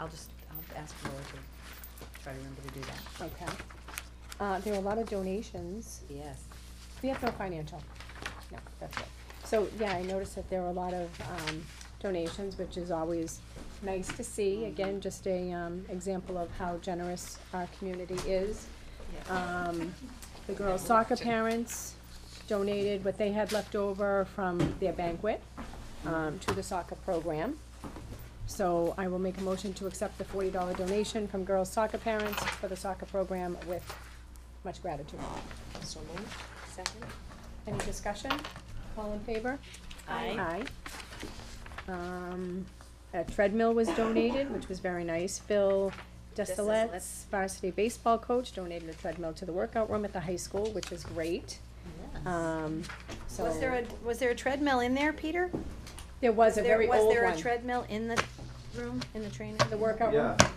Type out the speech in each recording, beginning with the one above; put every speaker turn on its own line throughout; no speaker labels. I'll just, I'll ask Laura to try to remember to do that.
Okay. Uh, there were a lot of donations.
Yes.
We have no financial. No, that's it. So, yeah, I noticed that there were a lot of, um, donations, which is always nice to see. Again, just a, um, example of how generous our community is. Um, the girls soccer parents donated what they had left over from their banquet, um, to the soccer program. So I will make a motion to accept the forty dollar donation from girls soccer parents for the soccer program with much gratitude.
So moved, second?
Any discussion? All in favor? Aye. Um, a treadmill was donated, which was very nice. Phil Desilets,
Desilets.
varsity baseball coach, donated a treadmill to the workout room at the high school, which is great. Um, so.
Was there a, was there a treadmill in there, Peter?
There was a very old
Was there a
one.
treadmill in the room, in the training?
The workout room?
Yeah,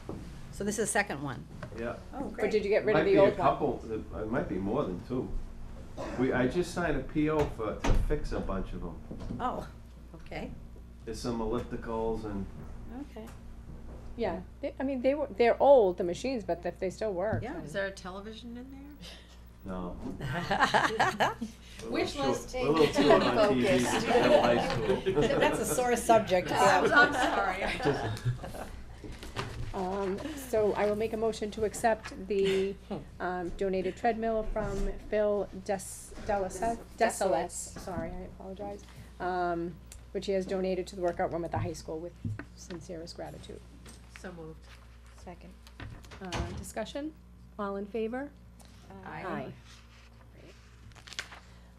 So this is the second one?
yeah.
Oh,
Or did you get rid of the
Might
old
be a
one?
couple, th- it might be more than two. We, I just signed a PO for, to fix a bunch of them.
Oh, okay,
There's some ellipticals and,
okay.
Yeah, they, I mean, they were, they're old, the machines, but if they still work.
Yeah.
then-
Is there a television in there?
no. we're a little
Wish
short-
list
We're a little too on TV to
focused.
tell high school.
That's a sore subject. for that
I'm,
one.
I'm sorry.
Um, so I will make a motion to accept the, um, donated treadmill from Phil Des, Delisette, Desilets, sorry, I apologize. Um, which he has donated to the workout room at the high school with sincerest gratitude.
So moved.
Second.
Uh, discussion, all in favor?
Aye.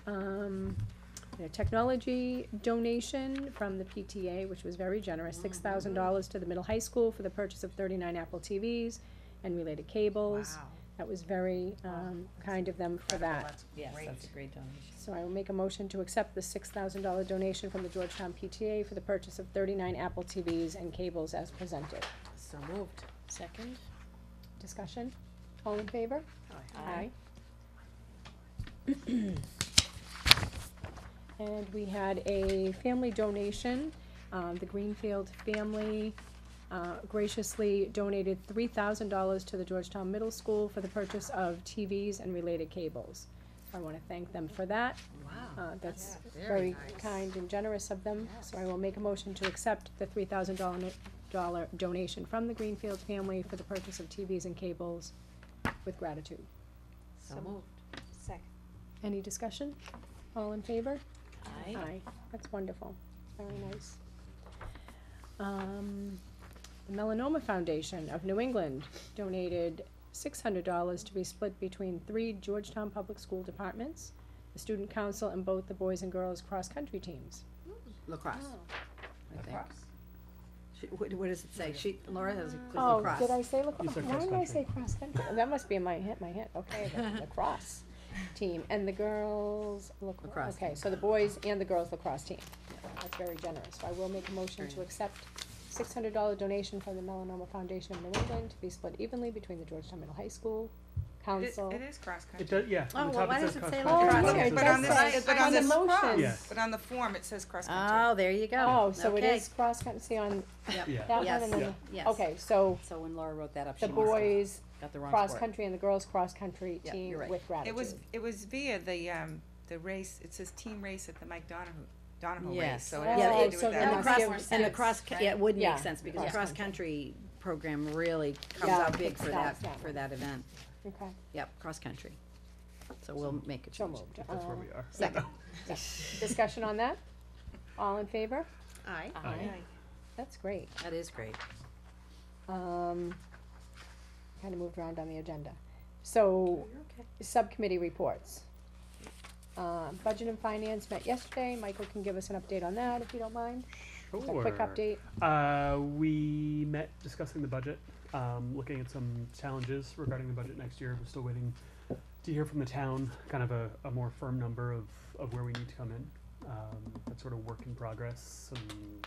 Um, a technology donation from the PTA, which was very generous, six thousand dollars to the middle high school for the purchase of thirty-nine Apple TVs and related cables. That was very, um, kind of them for that.
Yes, that's a great donation.
So I will make a motion to accept the six thousand dollar donation from the Georgetown PTA for the purchase of thirty-nine Apple TVs and cables as presented.
So moved. Second?
Discussion? All in favor?
Aye.
And we had a family donation, um, the Greenfield family, uh, graciously donated three thousand dollars to the Georgetown Middle School for the purchase of TVs and related cables. I wanna thank them for that,
Wow.
uh, that's
Very
very
nice.
kind and generous of them, so I will make a motion to accept the three thousand dollar, dollar donation from the Greenfield family for the purchase of TVs and cables with gratitude.
So moved.
Second.
Any discussion? All in favor?
Aye.
That's wonderful, very nice. Um, the Melanoma Foundation of New England donated six hundred dollars to be split between three Georgetown Public School departments, the student council, and both the boys and girls cross-country teams.
Lacrosse,
Oh,
I think.
She- What, what does it say? She, Laura has a quick
Oh,
lacrosse.
did I say
You
lacrosse?
said
Why did I
cross-country.
say cross-country? That must be in my head, my head, okay, the lacrosse team, and the girls lacrosse,
Lacrosse
okay,
team.
so the boys and the girls lacrosse team. That's very generous, so I will make a motion to accept six hundred dollar donation from the Melanoma Foundation of New England to be split evenly between the Georgetown Middle High School
It is,
Council.
it is cross
It
country.
does, yeah.
Oh,
on the
well,
top
why
says
does it say
cross-country,
lacrosse?
bottom
Oh, yeah,
says
it does say-
But on this, but on
on the
this,
motion.
Yes.
but on the form, it says cross country.
Oh, there you go.
Oh, so it
Okay.
is cross-country, see on
Yep.
Yeah.
that one
Yes.
and then,
Yeah.
the-
Yes.
okay, so
So when Laura wrote that up, she
the
must have
boys
got the wrong sport.
cross-country and the girls cross-country
Yeah,
team
you're right.
with gratitude.
It was, it was via the, um, the race, it says team race at the Mike Donahue, Donahue race,
Yes.
so it
Yeah,
has
oh,
to do
so
with
then
And the
must
that.
give
cross, and the
sense,
cross, yeah, it would
Yeah.
make sense, because the
Yeah.
cross-country program really comes
Yeah,
out big
kicks
for
that,
that,
that
for
one.
that event.
Okay,
Yep, cross-country. So we'll make a
so
change.
moved.
That's where
Uh,
we are.
Second.
Discussion on that? All in favor?
Aye.
Aye.
That's great.
That is great.
Um, kind of moved around on the agenda. So, subcommittee reports. Uh, budget and finance met yesterday. Michael can give us an update on that if you don't mind. Just A quick
Sure.
update.
Uh, we met discussing the budget, um, looking at some challenges regarding the budget next year. We're still waiting to hear from the town, kind of a, a more firm number of, of where we need to come in. Um, that's sort of work in progress. And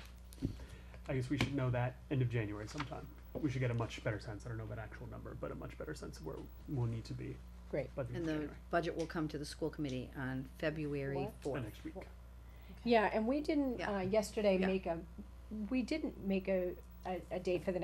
I guess we should know that end of January sometime. We should get a much better sense. I don't know of an actual number, but a much better sense of where we'll need to be
Great.
by the end
And
of
the
January,
budget will come to the school committee on February
What?
the
fourth.
next week.
Yeah, and we didn't,
Yeah.
uh, yesterday
Yeah.
make a, we didn't make a, a, a date for the next